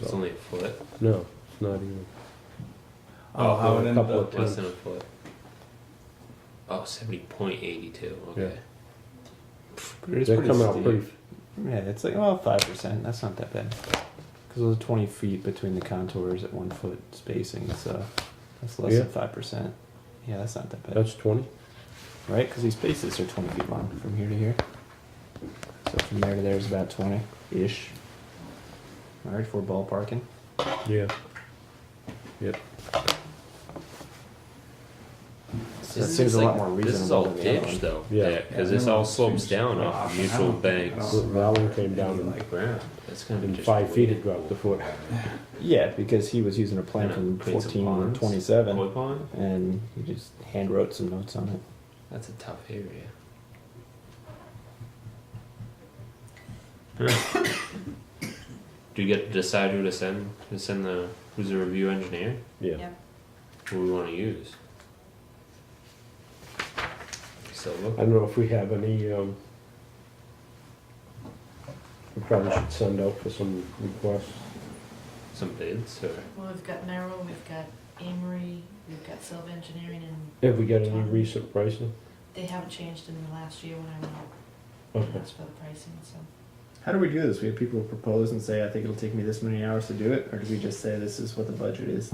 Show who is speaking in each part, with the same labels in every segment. Speaker 1: It's only a foot,
Speaker 2: No, it's not even.
Speaker 3: Oh, how it
Speaker 2: a
Speaker 3: ended
Speaker 2: couple
Speaker 3: up. was-
Speaker 2: of times.
Speaker 1: less than a foot. Oh, 70.82, okay.
Speaker 3: But it's
Speaker 2: They
Speaker 3: pretty
Speaker 2: come out
Speaker 3: steep.
Speaker 2: pretty.
Speaker 3: Yeah, it's like well, five percent. That's not that bad. Because it was twenty feet between the contours at one foot spacing, so that's less than
Speaker 2: Yeah.
Speaker 3: five percent. Yeah, that's not that bad,
Speaker 2: That's twenty.
Speaker 3: right? Because these spaces are twenty feet long from here to here. So from there to there is about twenty ish. All right, for ballparking.
Speaker 2: Yeah.
Speaker 3: So that
Speaker 1: Isn't
Speaker 3: seems
Speaker 1: this
Speaker 3: a lot
Speaker 1: like-
Speaker 3: more reasonable.
Speaker 1: This is all
Speaker 3: than the other one.
Speaker 1: ditch, though.
Speaker 2: Yeah.
Speaker 1: Because this all slopes down off
Speaker 4: I
Speaker 1: the mutual
Speaker 4: don't- I
Speaker 1: banks.
Speaker 2: The
Speaker 4: don't-
Speaker 2: Valen came down and,
Speaker 1: Like ground. That's gonna be
Speaker 2: in
Speaker 1: just
Speaker 2: five feet. It
Speaker 1: weird.
Speaker 2: dropped a foot.
Speaker 3: Yeah, because he was using a plan
Speaker 1: Yeah,
Speaker 3: from
Speaker 1: create some
Speaker 3: fourteen or
Speaker 1: ponds.
Speaker 3: twenty-seven,
Speaker 1: Koi pond?
Speaker 3: and he just hand wrote some notes on it.
Speaker 1: That's a tough area. Do you get to decide who to send? To send the who's the review engineer?
Speaker 2: Yeah.
Speaker 5: Yeah.
Speaker 1: Who we want to use? So
Speaker 2: I
Speaker 1: look.
Speaker 2: don't know if we have any. Um, we probably should send out for some requests.
Speaker 1: some bids or
Speaker 5: Well, we've got Merrill, we've got Amory, we've got Silva Engineering, and
Speaker 2: Have we got any recent pricing?
Speaker 5: they haven't changed in the last year when I went out and
Speaker 2: Okay.
Speaker 5: asked for the pricing, so.
Speaker 4: How do we do this? We have people propose and say, I think it'll take me this many hours to do it, or do we just say this is what the budget is?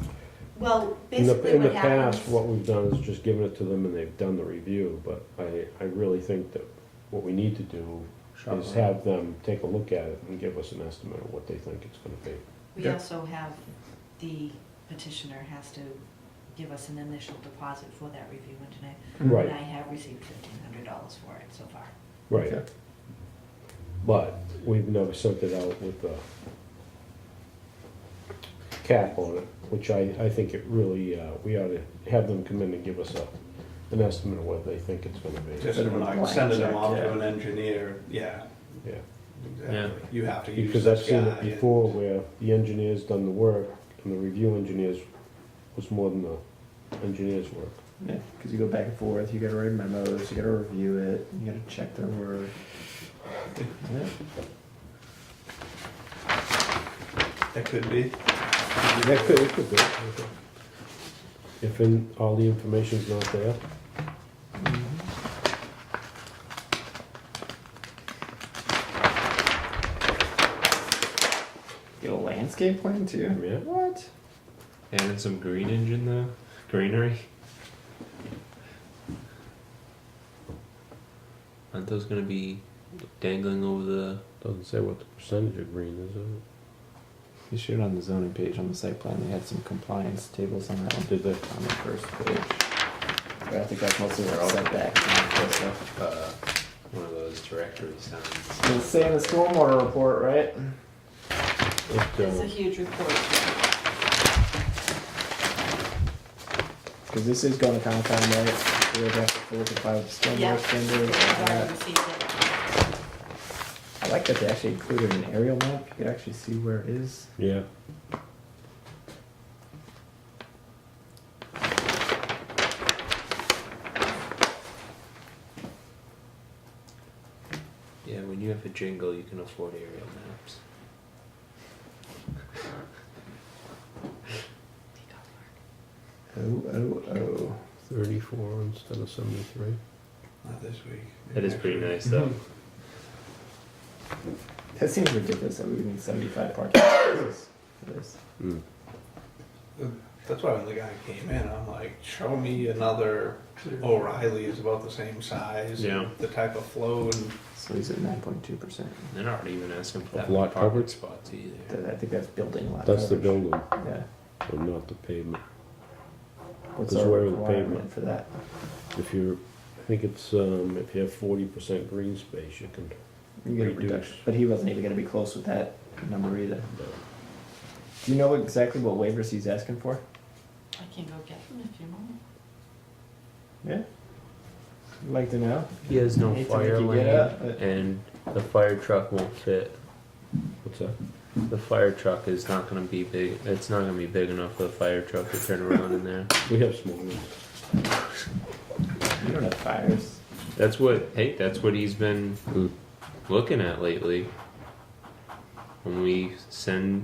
Speaker 5: Well,
Speaker 2: In the,
Speaker 5: basically
Speaker 2: in the
Speaker 5: what
Speaker 2: past,
Speaker 5: happens,
Speaker 2: what we've done is just given it to them and they've done the review, but I, I really think that what we need to do is
Speaker 4: Shopline.
Speaker 2: have them take a look at it and give us an estimate of what they think it's gonna be.
Speaker 5: we
Speaker 4: yeah.
Speaker 5: also have, the petitioner has to give us an initial deposit for that review engineer.
Speaker 2: Right.
Speaker 5: And I have received fifteen hundred dollars for it so far.
Speaker 2: Right,
Speaker 4: Okay.
Speaker 2: but we've never sent it out with a cap on it, which I, I think it really, uh, we ought to have them come in and give us a, an estimate of what they think it's gonna be.
Speaker 6: Just like
Speaker 4: Blank
Speaker 6: sending them
Speaker 4: check,
Speaker 6: off to
Speaker 4: yeah.
Speaker 6: an engineer, yeah,
Speaker 2: Yeah,
Speaker 6: exactly. You have to use
Speaker 2: because I've
Speaker 6: this
Speaker 2: seen
Speaker 6: guy
Speaker 2: it
Speaker 6: and-
Speaker 2: before where the engineer's done the work and the review engineers was more than the engineer's work.
Speaker 4: Yeah, because you go back and forth, you gotta write memos, you gotta review it, you gotta check their work. Yeah.
Speaker 6: That could be.
Speaker 2: That could, it could be. If in, all the information's not there,
Speaker 4: Get a landscape plan too?
Speaker 2: Yeah.
Speaker 4: What?
Speaker 1: Adding some green engine though, greenery. Aren't those gonna be dangling over the?
Speaker 2: doesn't say what the percentage of green is, does it?
Speaker 3: You showed on the zoning page on the site plan, they had some compliance tables on that one.
Speaker 2: Did they?
Speaker 3: On the first page.
Speaker 4: But I think that's mostly where all that back and that stuff.
Speaker 1: Uh, one of those directory signs.
Speaker 4: It's saying the stormwater report, right?
Speaker 2: It,
Speaker 5: It's
Speaker 2: uh,
Speaker 5: a huge report.
Speaker 4: Because this is going to Concom, right? We're gonna have to fully comply with the
Speaker 5: Yeah.
Speaker 4: stormwater standards. and
Speaker 5: I
Speaker 4: that.
Speaker 5: received it.
Speaker 4: I like that they actually included an aerial map. You can actually see where it is.
Speaker 2: Yeah.
Speaker 1: Yeah, when you have a jingle, you can afford aerial maps.
Speaker 4: Oh, oh, oh.
Speaker 2: Thirty-four instead of seventy-three.
Speaker 6: Not this week.
Speaker 1: That is pretty nice though.
Speaker 4: That seems ridiculous that we would need 75 parking spaces for this.
Speaker 1: Mm-hmm. Mm.
Speaker 6: That's why when the guy came in, I'm like, show me another O'Reilly is about the same size. and
Speaker 1: Yeah.
Speaker 6: The type of flow and
Speaker 3: So he's at nine point two percent.
Speaker 1: They're not even asking for
Speaker 2: Of
Speaker 1: that
Speaker 2: lot
Speaker 1: many parking
Speaker 2: coverage?
Speaker 1: spots either.
Speaker 4: That- I think that's building lot.
Speaker 2: That's the
Speaker 4: coverage.
Speaker 2: building,
Speaker 4: Yeah.
Speaker 2: but not the pavement.
Speaker 4: What's
Speaker 2: Because
Speaker 4: our
Speaker 2: where are the
Speaker 4: requirement
Speaker 2: pavement?
Speaker 4: for that?
Speaker 2: If you're, I think it's, um, if you have forty percent green space, you can,
Speaker 4: You get a
Speaker 2: Reduce.
Speaker 4: reduction. But he wasn't even going to be close with that number either.
Speaker 2: uh,
Speaker 4: Do you know exactly what waivers he's asking for?
Speaker 5: I can go get them if you want.
Speaker 4: Yeah. You'd like to know?
Speaker 1: He has no
Speaker 4: Hate to make
Speaker 1: fire
Speaker 4: you get
Speaker 1: lane,
Speaker 4: up, but-
Speaker 1: and the fire truck won't fit.
Speaker 2: what's that?
Speaker 1: The fire truck is not gonna be big. It's not gonna be big enough for the fire truck to turn around in there.
Speaker 2: We have small ones.
Speaker 4: You don't have fires.
Speaker 1: That's what. Hey, that's what he's been
Speaker 2: Mm.
Speaker 1: looking at lately. When we send